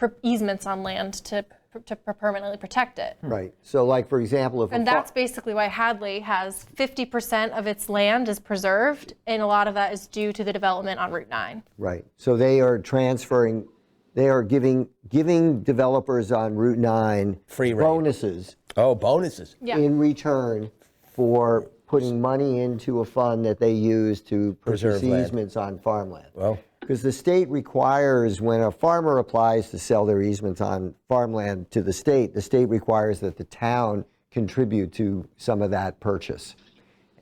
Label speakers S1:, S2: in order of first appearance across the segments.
S1: per- easements on land to, to permanently protect it.
S2: Right, so like, for example, if. a
S1: And
S2: fa-
S1: that's basically why Hadley has 50% of its land is preserved, and a lot of that is due to the development on Route 9.
S2: Right, so they are transferring, they are giving, giving developers on Route 9.
S3: Free reign.
S2: Bonuses
S3: Oh, bonuses.
S1: Yeah.
S2: in return for putting money into a fund that they use to purchase
S3: Preserve land.
S2: easements on farmland.
S3: Well-
S2: Because the state requires, when a farmer applies to sell their easements on farmland to the state, the state requires that the town contribute to some of that purchase.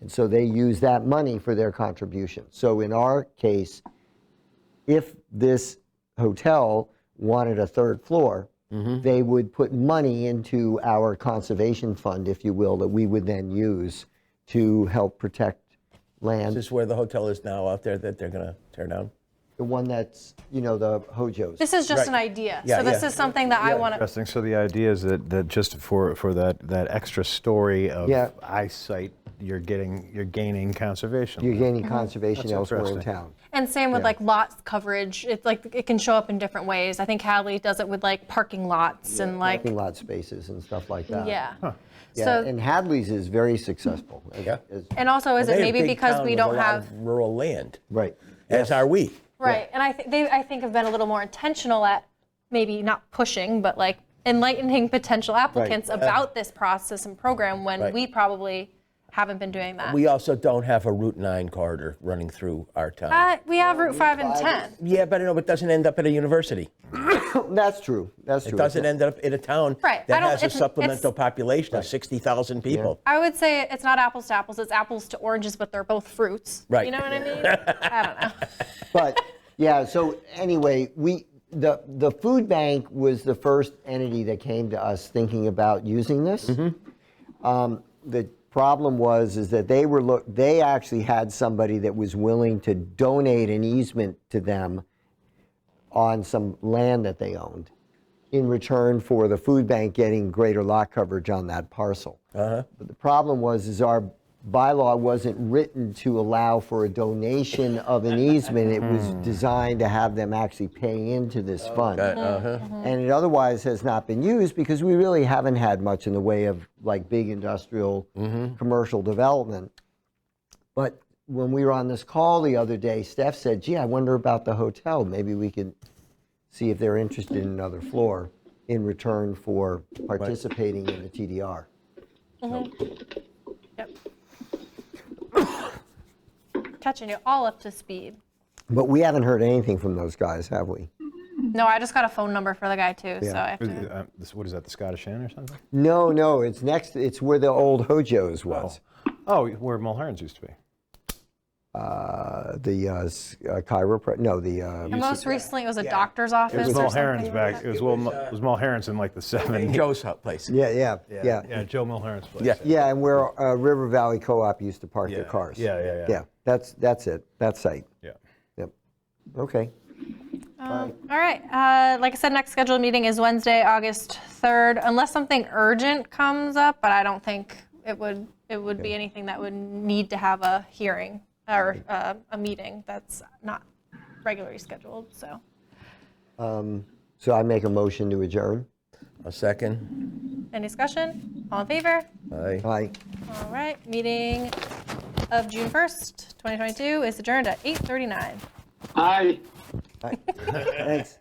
S2: And so they use that money for their contribution. So in our case, if this hotel wanted a third floor,
S3: Mm-hmm.
S2: they would put money into our conservation fund, if you will, that we would then use to help protect land.
S3: This is where the hotel is now out there that they're going to tear down.
S2: The one that's, you know, the Hojo's.
S1: This is just an idea.
S3: Yeah,
S1: so this
S3: yeah.
S1: is something that I want to.
S4: Interesting. So the idea is that, that just for, for that, that extra story of
S2: Yeah.
S4: eyesight, you're getting, you're gaining conservation.
S2: You're gaining
S1: Mm-hmm.
S2: conservation elsewhere in
S4: interesting.
S2: town.
S1: And same with like lot coverage. It's like it can show up in different ways. I think Hadley does it with like parking lots and like
S2: Parking lot spaces and stuff like that.
S1: yeah.
S2: Yeah,
S1: So
S2: and Hadley's is very successful. as-
S3: Yeah.
S2: as-
S1: and also is it
S3: They're a
S1: maybe
S3: big
S1: because
S3: town
S1: we
S3: with
S1: don't
S3: a lot
S1: have
S3: of rural land,
S2: Right.
S3: as are we.
S1: Right, and I think they, I think have been a little more intentional at maybe not pushing, but like enlightening potential applicants about this process and program when
S3: Right.
S1: we probably haven't been doing that.
S3: We also don't have a Route 9 corridor running through our town.
S1: uh, we have Route Five and
S2: five
S1: Ten.
S3: yeah, but I know it doesn't end up at a university.
S2: That's true, that's true.
S3: It doesn't end up in a town
S1: Right, I
S3: that
S1: don't-
S3: has a
S1: it's-
S3: supplemental
S1: it's-
S3: population of 60,000 people.
S1: I would say it's not apples to apples; it's apples to oranges, but they're both fruits. You
S3: Right.
S1: know what I mean? I don't know.
S2: But, yeah, so anyway, we, the, the food bank was the first entity that came to us thinking about using this. Um, The problem was, is that they were, look, they actually had somebody that was willing to donate an easement to them on some land that they owned in return for the food bank getting greater lot coverage on that parcel. But the problem was, is our bylaw wasn't written to allow for a donation of an easement. It was designed to have them actually pay into this fund. And it otherwise has not been used because we really haven't had much in the way of like big industrial, commercial development. But when we were on this call the other day, Steph said, gee, I wonder about the hotel. Maybe we could see if they're interested in another floor in return for participating in the TDR.
S1: Yep. Catching you all up to speed.
S2: But we haven't heard anything from those guys, have we?
S1: No, I just got a phone number for the guy too, so I have
S4: Is-
S1: to.
S4: uh, this- What is that, the Scottish Inn or something?
S2: No, no, it's next, it's where the old Hojo's was.
S4: Oh, where Mulherns used to be.
S2: Uh, The uh, s- uh, chiropr, no, the, uh,
S1: And most recently, it was a doctor's office.
S4: It was
S1: or something.
S4: Mulherns back, it was Will
S1: uh,
S4: Mul- it was Mulherns in like the 70s.
S3: Joe's hot place.
S2: yeah, yeah, yeah.
S4: Yeah, Joe Mulherns place.
S3: Yeah.
S2: Yeah, and where uh, River Valley Co-op used to park their
S4: Yeah,
S2: cars.
S4: yeah, yeah, yeah.
S2: Yeah, that's, that's it, that site.
S4: Yeah.
S2: Yep. Okay.
S1: All right. Uh, like I said, next scheduled meeting is Wednesday, August 3rd, unless something urgent comes up, but I don't think it would, it would be anything that would need to have a hearing or uh, a meeting that's not regularly scheduled, so.
S2: So I make a motion to adjourn.
S3: A second.
S1: Any discussion? All in favor?
S3: Aye.
S2: Aye.
S1: All right, meeting of June 1st, 2022 is adjourned at 8:39.
S5: Aye.
S2: Thanks.